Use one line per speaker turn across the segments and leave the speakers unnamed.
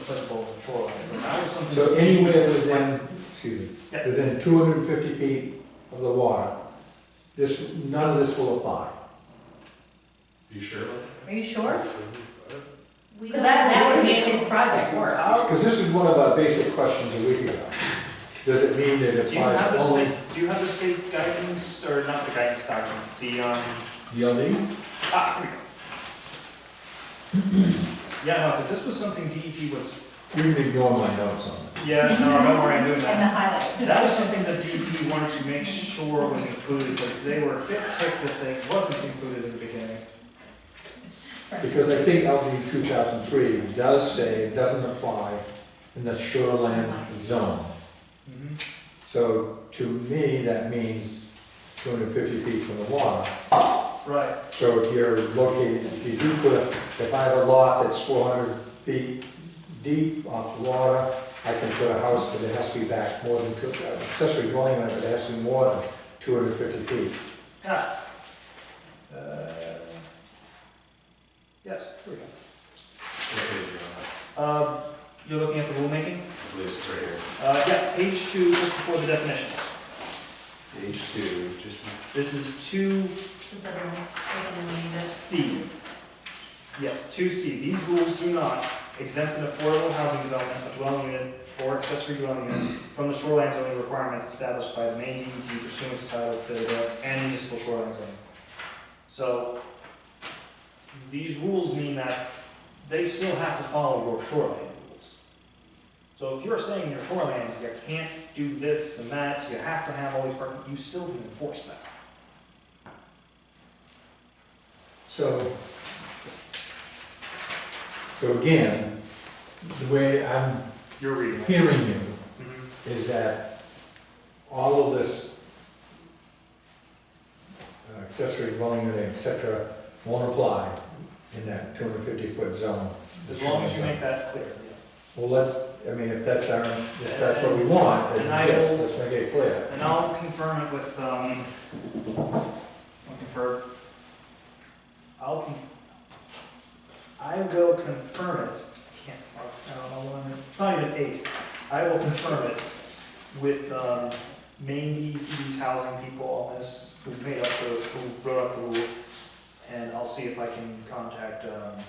applicable shoreline. Now it's something
So
that's-
anywhere within, excuse me,
Yeah.
within two hundred and fifty feet of the water, this, none of this will apply.
You sure?
Are you sure?
We
Because that,
don't-
that would make his project work.
Because this is one of our basic questions a week ago. Does it mean that it
Do you have the
applies only?
state, do you have the state guidance, or not the guidance documents, the, um,
DLD?
ah, here we go. Yeah, no, because this was something DEP was,
You've ignored my notes on it.
yeah, no, don't worry, I'm doing
And
that.
the highlight.
That was something that DEP wanted to make sure was included, because they were a bit ticked that they wasn't included in the beginning.
Because I think LD two thousand three does say it doesn't apply in the shoreline zone.
Mhm.
So to me, that means two hundred and fifty feet from the water.
Right,
So if you're located, if you do put, a- if I have a lot that's four hundred feet deep off the water, I can put a house, but it has to be back more than two, uh, accessory dwelling unit, but it has to be more than two hundred and fifty feet.
ah. Uh, Yes, here we go. Um, You're looking at the rulemaking?
I believe it's right here.
Uh, Yeah, page two, just before the definitions.
Page two, just.
This is two
Does everyone, does
C. Yes, two C. These rules do not exempt an affordable housing development, a dwelling unit, or accessory dwelling unit from the shoreline zoning requirements established by the main DEP pursuant to Title 31 and municipal shoreline zoning. So these rules mean that they still have to follow your shoreline rules. So if you're saying your shoreline, you can't do this and that, so you have to have all these, per- you still can enforce that.
So, so again, the way I'm
You're reading it.
hearing you
Mhm.
is that all of this uh, accessory dwelling unit, et cetera, won't apply in that two hundred fifty foot zone.
As long as you make that clear,
Well, let's, I mean, if that's our, if that's what we want, then
And I
yes,
will-
let's make it clear.
And I'll confirm it with, um, I'll confer, I'll con, I will confirm it, can't, talk, I don't know when, it's not even eight. I will confirm it with, um, Maine DEC's housing people on this, who made up the, who wrote up the rule. And I'll see if I can contact, um,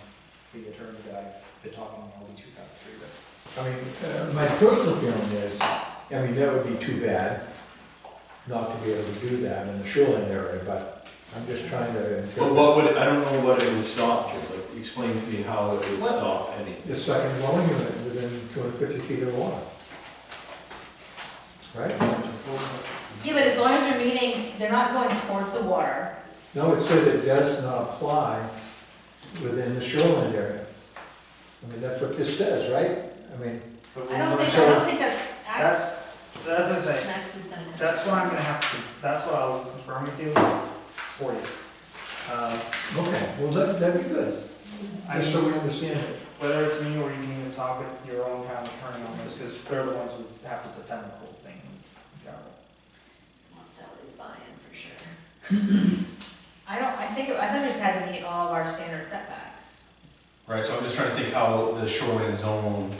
the attorney that I've been talking to, LD two thousand three, but
I mean, uh, my personal feeling is, I mean, that would be too bad not to be able to do that in the shoreline area, but I'm just trying to.
But what would, I don't know what it would stop, Joe, like, explain to me how it would
What?
stop anything.
The second dwelling unit within two hundred fifty feet of water. Right?
Yeah, but as long as you're meeting, they're not going towards the water.
No, it says it does not apply within the shoreline area. I mean, that's what this says, right? I mean,
the rules
I don't
are
think,
so-
I don't think that's accurate.
That's, that's what I'm
everyone,
saying,
Max is done.
that's what I'm gonna have to, that's what I'll confirm with you for you. Um,
okay, well, that, that'd be good,
I
just so
mean,
we understand it.
whether it's me or you need to talk with your own kind of attorney on this, because they're the ones who have to defend the whole thing.
Want Sally's buy-in for sure.
I don't, I think, it- I thought it just had to meet all of our standard setbacks.
Right, so I'm just trying to think how the shoreline zone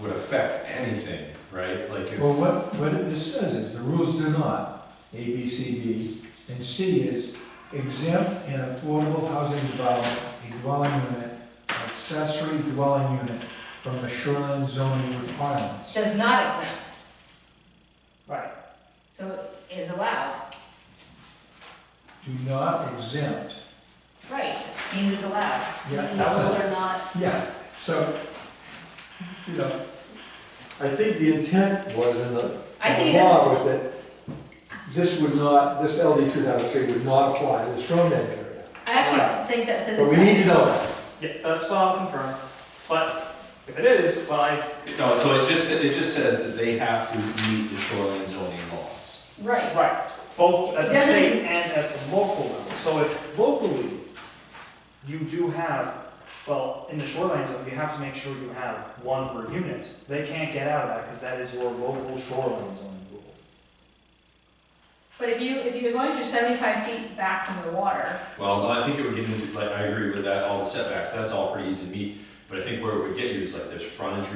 would affect anything, right? Like, if-
Well, what, what it just says is, the rules do not, A, B, C, D, and C is exempt an affordable housing development, a dwelling unit, accessory dwelling unit from the shoreline zoning requirements.
Does not exempt,
Right,
so is allowed.
Do not exempt.
Right, means it's allowed.
Yeah, that was-
Those are not,
Yeah, so, you know, I think the intent was in the
I think
the
it
law
doesn't,
was that this would not, this LD two thousand three would not apply to the shoreline area.
I actually think that says.
But we need to know that.
yeah, that's what I'll confirm, but if it is, well, I,
no, so it just, it just says that they have to meet the shoreline zoning laws.
Right,
right, both at
It
the
doesn't-
state and at the local level. So if locally, you do have, well, in the shoreline zone, you have to make sure you have one per unit. They can't get out of that because that is your local shoreline zone rule.
but if you, if you, as long as you're seventy-five feet back from the water,
Well, I think it would get into, like, I agree with that, all the setbacks, that's all pretty easy to meet. But I think where it would get you is like, there's frontage